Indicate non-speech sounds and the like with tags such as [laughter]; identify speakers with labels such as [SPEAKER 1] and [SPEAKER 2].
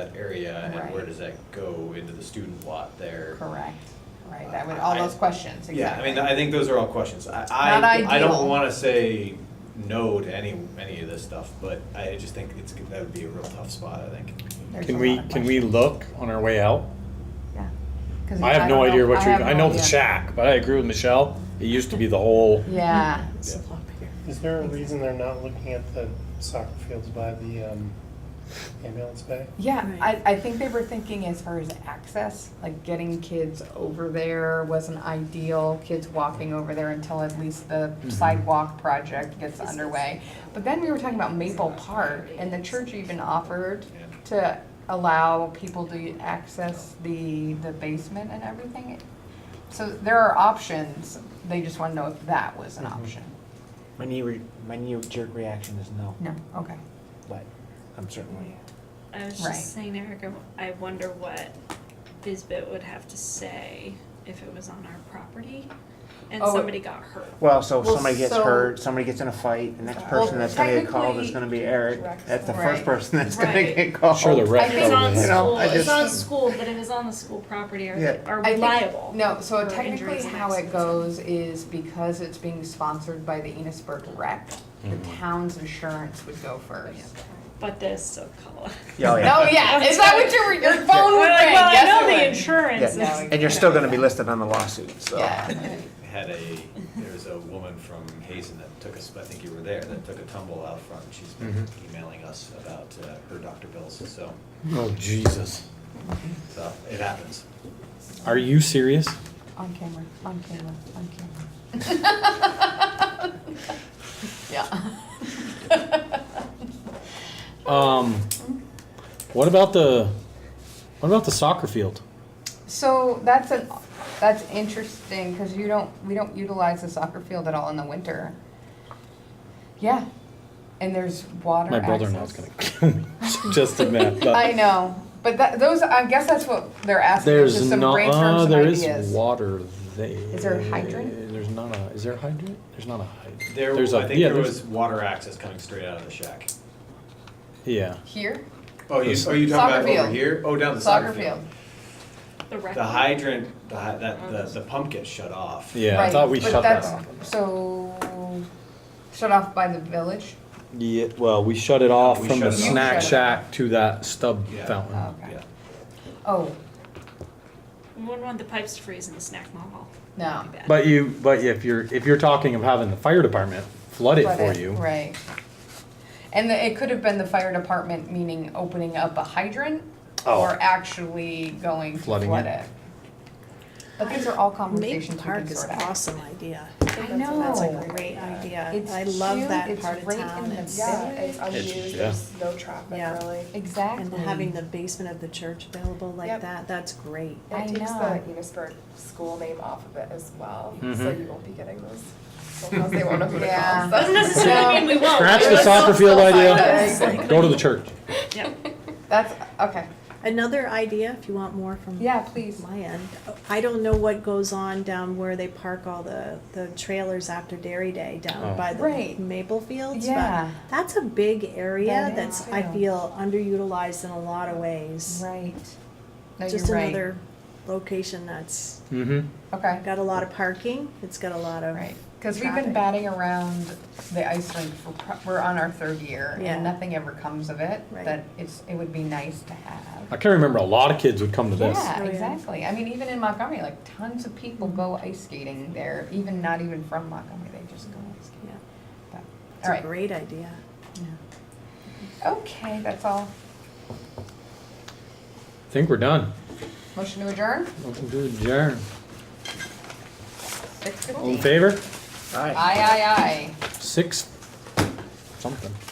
[SPEAKER 1] that area and where
[SPEAKER 2] Right.
[SPEAKER 1] does that go into the student lot there?
[SPEAKER 2] Correct, right, that would, all those questions,
[SPEAKER 1] Uh, Yeah, I
[SPEAKER 2] exactly.
[SPEAKER 1] mean, I think those are all questions. I,
[SPEAKER 2] Not
[SPEAKER 1] I, I
[SPEAKER 2] ideal.
[SPEAKER 1] don't wanna say no to any, any of this stuff, but I just think it's, that would be a real tough spot, I think.
[SPEAKER 2] There's
[SPEAKER 3] Can
[SPEAKER 2] a
[SPEAKER 3] we,
[SPEAKER 2] lot of
[SPEAKER 3] can we
[SPEAKER 2] questions.
[SPEAKER 3] look on our way out?
[SPEAKER 2] Yeah. 'Cause
[SPEAKER 3] I have no
[SPEAKER 2] don't
[SPEAKER 3] idea what you're,
[SPEAKER 2] have
[SPEAKER 3] I
[SPEAKER 2] no
[SPEAKER 3] know the
[SPEAKER 2] idea.
[SPEAKER 3] shack, but I agree with Michelle, it used to be the whole,
[SPEAKER 2] Yeah,
[SPEAKER 4] Is there a reason they're not looking at the soccer fields by the um, ambulance bay?
[SPEAKER 2] yeah,
[SPEAKER 5] Right.
[SPEAKER 2] I, I think they were thinking as far as access, like getting kids over there wasn't ideal, kids walking over there until at least the sidewalk project gets underway. But then we were talking about Maple Park, and the church even offered to allow people to access the, the basement and everything. So there are options, they just wanna know if that was an option.
[SPEAKER 6] My knee, re- my knee jerk reaction is no,
[SPEAKER 2] No, okay.
[SPEAKER 6] but I'm certainly.
[SPEAKER 5] I was
[SPEAKER 2] Right.
[SPEAKER 5] just saying to Erica, I wonder what Bizbit would have to say if it was on our property and
[SPEAKER 2] Oh.
[SPEAKER 5] somebody got hurt.
[SPEAKER 6] Well, so if
[SPEAKER 2] Well,
[SPEAKER 6] somebody gets
[SPEAKER 2] so-
[SPEAKER 6] hurt, somebody gets in a fight, the next
[SPEAKER 2] Well,
[SPEAKER 6] person that's gonna get called is
[SPEAKER 7] technically-
[SPEAKER 6] gonna be Eric. That's the
[SPEAKER 2] Right.
[SPEAKER 6] first person that's gonna
[SPEAKER 5] Right.
[SPEAKER 6] get called.
[SPEAKER 3] sure the rec
[SPEAKER 2] I
[SPEAKER 5] It's on
[SPEAKER 3] probably
[SPEAKER 6] Oh, You
[SPEAKER 3] has.
[SPEAKER 6] know,
[SPEAKER 5] school,
[SPEAKER 6] I
[SPEAKER 5] it's
[SPEAKER 6] just-
[SPEAKER 5] on school, but if it's on the school property,
[SPEAKER 6] Yeah.
[SPEAKER 5] are, are
[SPEAKER 2] I
[SPEAKER 5] we
[SPEAKER 2] think-
[SPEAKER 5] liable?
[SPEAKER 2] No, so
[SPEAKER 5] for
[SPEAKER 2] technically
[SPEAKER 5] injuries and
[SPEAKER 2] how it
[SPEAKER 5] accidents?
[SPEAKER 2] goes is because it's being sponsored by the Enosburg rec, the
[SPEAKER 6] Mm-hmm.
[SPEAKER 2] town's insurance would go first.
[SPEAKER 5] But there's still [laughs] color.
[SPEAKER 6] [laughs] Yeah, oh, yeah.
[SPEAKER 2] Oh,
[SPEAKER 5] [laughs]
[SPEAKER 2] yeah, is that what your, your phone would
[SPEAKER 5] Well,
[SPEAKER 2] ring? Yes,
[SPEAKER 5] I
[SPEAKER 2] it
[SPEAKER 5] know the
[SPEAKER 2] would.
[SPEAKER 5] insurance
[SPEAKER 2] Yeah.
[SPEAKER 5] is,
[SPEAKER 6] And you're still gonna be listed on the lawsuit, so.
[SPEAKER 2] Yeah,
[SPEAKER 5] [laughs]
[SPEAKER 1] Had a, there was a woman from Hazen that took us, I think you were there, that took a tumble out front. She's been
[SPEAKER 3] Mhm.
[SPEAKER 1] emailing us about uh, her doctor bills, so,
[SPEAKER 3] Oh, Jesus.
[SPEAKER 1] so it happens.
[SPEAKER 3] [laughs] Are you serious?
[SPEAKER 2] on camera, on camera, on camera. [laughs] Yeah.
[SPEAKER 3] Um, what about the, what about the soccer field?
[SPEAKER 2] So that's an, that's interesting, cause you don't, we don't utilize the soccer field at all in the winter. Yeah, and there's water
[SPEAKER 3] My
[SPEAKER 2] access.
[SPEAKER 3] brother-in-law's gonna kill me, [laughs] just a minute,
[SPEAKER 2] I
[SPEAKER 3] but
[SPEAKER 2] know, but that, those, I guess that's what they're asking, is
[SPEAKER 3] there's
[SPEAKER 2] just some
[SPEAKER 3] no,
[SPEAKER 2] brainstorm,
[SPEAKER 3] uh,
[SPEAKER 2] some
[SPEAKER 3] there is
[SPEAKER 2] ideas.
[SPEAKER 3] water there.
[SPEAKER 2] Is there a hydrant?
[SPEAKER 3] There's not a, is there a hydrant? There's not a hydrant.
[SPEAKER 1] There,
[SPEAKER 3] There's a-
[SPEAKER 1] I think
[SPEAKER 3] yeah,
[SPEAKER 1] there
[SPEAKER 3] there's-
[SPEAKER 1] was water access coming straight out of the shack.
[SPEAKER 3] Yeah.
[SPEAKER 2] Here,
[SPEAKER 1] Oh, you,
[SPEAKER 3] This-
[SPEAKER 1] oh, you
[SPEAKER 2] Soccer
[SPEAKER 1] talking about
[SPEAKER 2] field.
[SPEAKER 1] over here? Oh, down the
[SPEAKER 2] soccer field,
[SPEAKER 5] the record.
[SPEAKER 1] The hydrant, the, hy- that, the, the pump gets shut off.
[SPEAKER 3] Yeah, I
[SPEAKER 2] right,
[SPEAKER 3] thought we
[SPEAKER 2] but
[SPEAKER 3] shut that
[SPEAKER 2] that's-
[SPEAKER 3] off.
[SPEAKER 2] So, shut off by the village,
[SPEAKER 3] Yeah, well, we shut it off
[SPEAKER 1] We
[SPEAKER 3] from the
[SPEAKER 1] shut it
[SPEAKER 2] off.
[SPEAKER 3] snack
[SPEAKER 2] You shut it
[SPEAKER 3] shack to that stub
[SPEAKER 1] Yeah.
[SPEAKER 3] fountain.
[SPEAKER 2] okay,
[SPEAKER 1] Yeah.
[SPEAKER 2] oh,
[SPEAKER 5] We wouldn't want the pipes to freeze in the snack mall.
[SPEAKER 2] no.
[SPEAKER 5] That'd be bad.
[SPEAKER 3] But you, but if you're, if you're talking of having the fire department flood it
[SPEAKER 2] But
[SPEAKER 3] for
[SPEAKER 2] it-
[SPEAKER 3] you.
[SPEAKER 2] Right. And the- it could have been the fire department, meaning opening up a hydrant
[SPEAKER 3] Oh.
[SPEAKER 2] or actually going to flood
[SPEAKER 3] Flooding it.
[SPEAKER 2] it. But these are all
[SPEAKER 7] Maple
[SPEAKER 2] conversations we
[SPEAKER 7] Park
[SPEAKER 2] can
[SPEAKER 7] is
[SPEAKER 2] sort
[SPEAKER 7] an
[SPEAKER 2] out.
[SPEAKER 7] awesome idea.
[SPEAKER 2] I
[SPEAKER 7] That's
[SPEAKER 2] know.
[SPEAKER 7] a great idea.
[SPEAKER 2] It's
[SPEAKER 7] I love
[SPEAKER 2] cute,
[SPEAKER 7] that
[SPEAKER 2] it's
[SPEAKER 7] part of
[SPEAKER 2] right
[SPEAKER 7] town.
[SPEAKER 2] in the
[SPEAKER 7] It's-
[SPEAKER 2] Yeah,
[SPEAKER 8] Yeah,
[SPEAKER 2] it's
[SPEAKER 8] it's
[SPEAKER 3] It's-
[SPEAKER 8] unused,
[SPEAKER 3] yeah.
[SPEAKER 8] there's no traffic
[SPEAKER 7] Yeah.
[SPEAKER 8] really.
[SPEAKER 2] Exactly.
[SPEAKER 7] And having the basement of the church available like
[SPEAKER 8] Yep.
[SPEAKER 7] that, that's great.
[SPEAKER 2] I
[SPEAKER 8] It takes
[SPEAKER 2] know.
[SPEAKER 8] the Enosburg school name off of it as well, so
[SPEAKER 3] Mhm.
[SPEAKER 8] you won't be getting those phone calls, they won't know who to
[SPEAKER 2] Yeah.
[SPEAKER 8] call.
[SPEAKER 5] Doesn't necessarily mean we won't.
[SPEAKER 3] Scratch the
[SPEAKER 5] Let's all
[SPEAKER 3] soccer field
[SPEAKER 5] still
[SPEAKER 3] idea.
[SPEAKER 5] find those.
[SPEAKER 3] Go to the church.
[SPEAKER 5] Yeah.
[SPEAKER 2] That's, okay.
[SPEAKER 7] Another idea, if you want more from
[SPEAKER 2] Yeah, please.
[SPEAKER 7] my end, I don't know what goes on down where they park all the, the trailers after Dairy Day
[SPEAKER 3] Oh.
[SPEAKER 7] down by the
[SPEAKER 2] Right.
[SPEAKER 7] maple fields. but
[SPEAKER 2] Yeah.
[SPEAKER 7] That's a big area
[SPEAKER 2] That is
[SPEAKER 7] that's, I
[SPEAKER 2] too.
[SPEAKER 7] feel, underutilized in a lot of ways.
[SPEAKER 2] Right. No, you're
[SPEAKER 7] Just
[SPEAKER 2] right.
[SPEAKER 7] another location that's
[SPEAKER 3] Mm-hmm.
[SPEAKER 2] Okay.
[SPEAKER 7] Got a lot of parking, it's got a lot of.
[SPEAKER 2] Right, because we've been
[SPEAKER 7] traffic.
[SPEAKER 2] batting around the ice rink for, pro- we're on our third year
[SPEAKER 7] Yeah.
[SPEAKER 2] and nothing ever comes of it.
[SPEAKER 7] Right.
[SPEAKER 2] That it's, it would be nice to have.
[SPEAKER 3] I can remember a lot of kids would come to this.
[SPEAKER 2] Yeah,
[SPEAKER 7] Oh, yeah.
[SPEAKER 2] exactly. I mean, even in Montgomery, like tons of people go ice skating there, even not even from Montgomery, they just go ice skating.
[SPEAKER 7] Yeah,
[SPEAKER 2] But-
[SPEAKER 7] It's
[SPEAKER 2] All
[SPEAKER 7] a
[SPEAKER 2] right,
[SPEAKER 7] great idea.
[SPEAKER 2] okay, that's all.
[SPEAKER 3] I think we're done.
[SPEAKER 2] Motion to adjourn,
[SPEAKER 3] Motion to adjourn.
[SPEAKER 2] six
[SPEAKER 3] All
[SPEAKER 2] fifteen.
[SPEAKER 3] in
[SPEAKER 2] Aye,
[SPEAKER 3] favor?
[SPEAKER 6] All right.
[SPEAKER 2] aye, aye.
[SPEAKER 3] Six something.